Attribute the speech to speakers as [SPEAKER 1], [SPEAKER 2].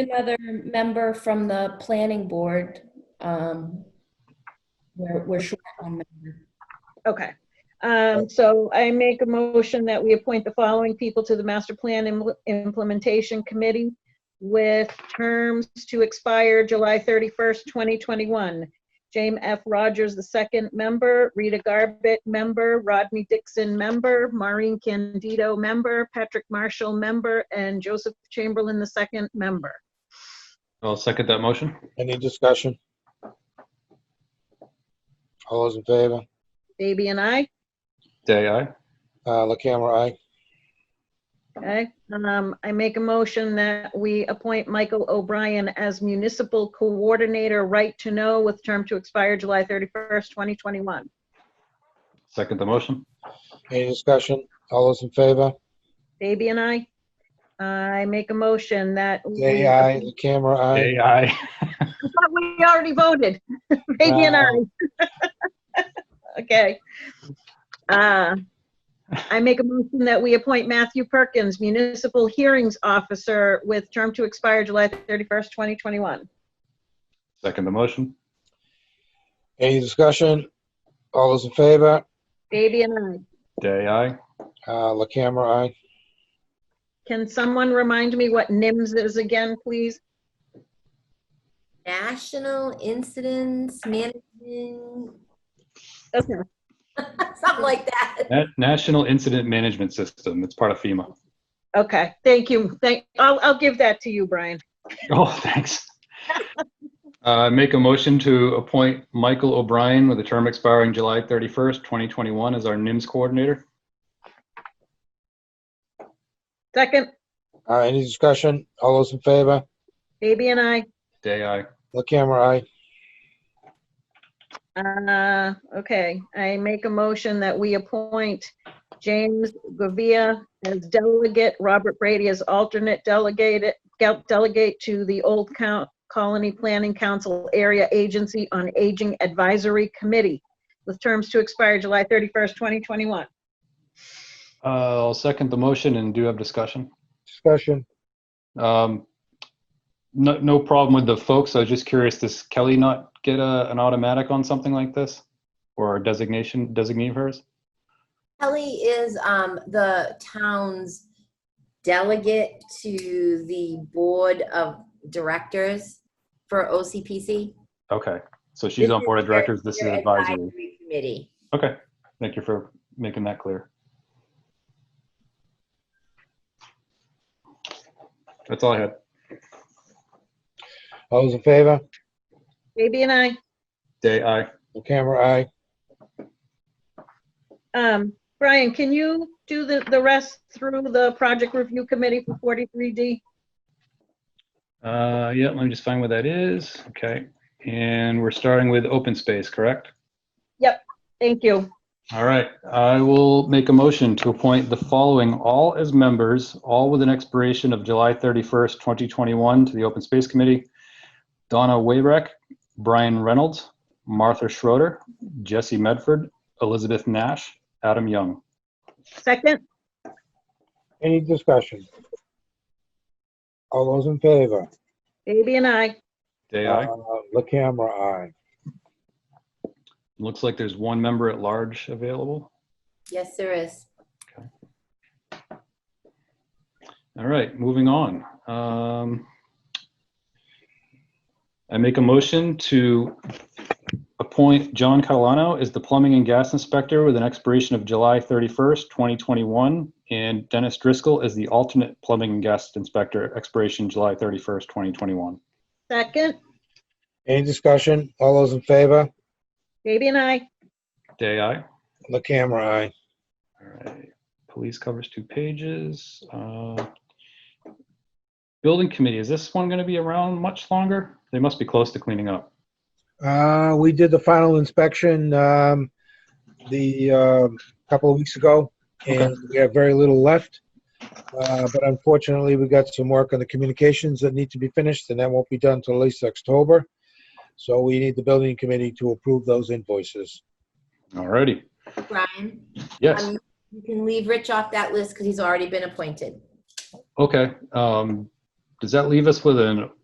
[SPEAKER 1] another member from the planning board. um, We're, we're short on member.
[SPEAKER 2] Okay, um, so I make a motion that we appoint the following people to the Master Plan Im- Implementation Committee with terms to expire July 31st, 2021. James F. Rogers, the second member, Rita Garbett, member, Rodney Dixon, member, Maureen Candido, member, Patrick Marshall, member, and Joseph Chamberlain, the second member.
[SPEAKER 3] I'll second that motion.
[SPEAKER 4] Any discussion? All those in favor?
[SPEAKER 2] Baby and I.
[SPEAKER 3] Day, aye.
[SPEAKER 4] Uh, La Camera, aye.
[SPEAKER 2] Okay, um, I make a motion that we appoint Michael O'Brien as Municipal Coordinator, Right to Know, with term to expire July 31st, 2021.
[SPEAKER 3] Second the motion.
[SPEAKER 4] Any discussion? All those in favor?
[SPEAKER 2] Baby and I, I make a motion that. we-
[SPEAKER 4] Day, aye. La Camera, aye.
[SPEAKER 3] Day, aye.
[SPEAKER 2] I thought We already voted. Baby and I. Okay. Uh, I make a motion that we appoint Matthew Perkins Municipal Hearings Officer with term to expire July 31st, 2021.
[SPEAKER 3] Second the motion.
[SPEAKER 4] Any discussion? All those in favor?
[SPEAKER 2] Baby and I.
[SPEAKER 3] Day, aye.
[SPEAKER 4] Uh, La Camera, aye.
[SPEAKER 2] Can someone remind me what NIMS is again, please?
[SPEAKER 5] National Incidents Management,
[SPEAKER 2] Okay.
[SPEAKER 5] something like that.
[SPEAKER 3] Na- National Incident Management System. It's part of FEMA.
[SPEAKER 2] Okay, thank you. Thank, I'll, I'll give that to you, Brian.
[SPEAKER 3] Oh, thanks. Uh, make a motion to appoint Michael O'Brien with a term expiring July 31st, 2021 as our NIMS coordinator.
[SPEAKER 2] Second,
[SPEAKER 4] Uh, any discussion? All those in favor?
[SPEAKER 2] Baby and I.
[SPEAKER 3] Day, aye.
[SPEAKER 4] La Camera, aye.
[SPEAKER 2] Uh, okay, I make a motion that we appoint James Govia as delegate, Robert Brady as alternate delegate, delegate to the Old Count Colony Planning Council Area Agency on Aging Advisory Committee with terms to expire July 31st, 2021.
[SPEAKER 3] Uh, I'll second the motion and do have discussion.
[SPEAKER 4] Discussion?
[SPEAKER 3] Um, no, no problem with the folks. I was just curious, does Kelly not get a, an automatic on something like this? Or a designation, designee of hers?
[SPEAKER 5] Kelly is um, the town's delegate to the Board of Directors for OCPC.
[SPEAKER 3] Okay, so she's
[SPEAKER 5] This
[SPEAKER 3] on board of
[SPEAKER 5] is
[SPEAKER 3] directors, this is
[SPEAKER 5] their
[SPEAKER 3] advisory.
[SPEAKER 5] advisory Committee.
[SPEAKER 3] Okay, thank you for making that clear. That's all I had.
[SPEAKER 4] All those in favor?
[SPEAKER 2] Baby and I.
[SPEAKER 3] Day, aye.
[SPEAKER 4] La Camera, aye.
[SPEAKER 2] Um, Brian, can you do the, the rest through the project review committee for 43D?
[SPEAKER 3] Uh, yeah, let me just find where that is. Okay, and we're starting with open space, correct?
[SPEAKER 2] Thank you.
[SPEAKER 3] All right, I will make a motion to appoint the following all as members, all with an expiration of July 31st, 2021, to the Open Space Committee. Donna Wayreck, Brian Reynolds, Martha Schroeder, Jesse Medford, Elizabeth Nash, Adam Young.
[SPEAKER 2] Second,
[SPEAKER 4] Any discussion? All those in favor?
[SPEAKER 2] Baby and I.
[SPEAKER 3] Day, aye.
[SPEAKER 4] Uh, La Camera, aye.
[SPEAKER 3] Looks like there's one member at large available.
[SPEAKER 5] Yes, there is.
[SPEAKER 3] All right, moving on. Um, I make a motion to appoint John Catalano as the plumbing and gas inspector with an expiration of July 31st, 2021, and Dennis Driscoll as the alternate plumbing and gas inspector, expiration July 31st, 2021.
[SPEAKER 2] Second,
[SPEAKER 4] Any discussion? All those in favor?
[SPEAKER 2] Baby and I.
[SPEAKER 3] Day, aye.
[SPEAKER 4] La Camera, aye.
[SPEAKER 3] All right, police covers two pages. Uh, Building committee, is this one going to be around much longer? They must be close to cleaning up.
[SPEAKER 4] Uh, we did the final inspection, um, the, um, couple of weeks ago, and we have very little left. Uh, but unfortunately, we got some work on the communications that need to be finished, and that won't be done till at least October. So we need the building committee to approve those invoices.
[SPEAKER 3] Alrighty,
[SPEAKER 5] Brian,
[SPEAKER 3] yes,
[SPEAKER 5] um, you can leave Rich off that list because he's already been appointed.
[SPEAKER 3] okay. Um, does that leave us with an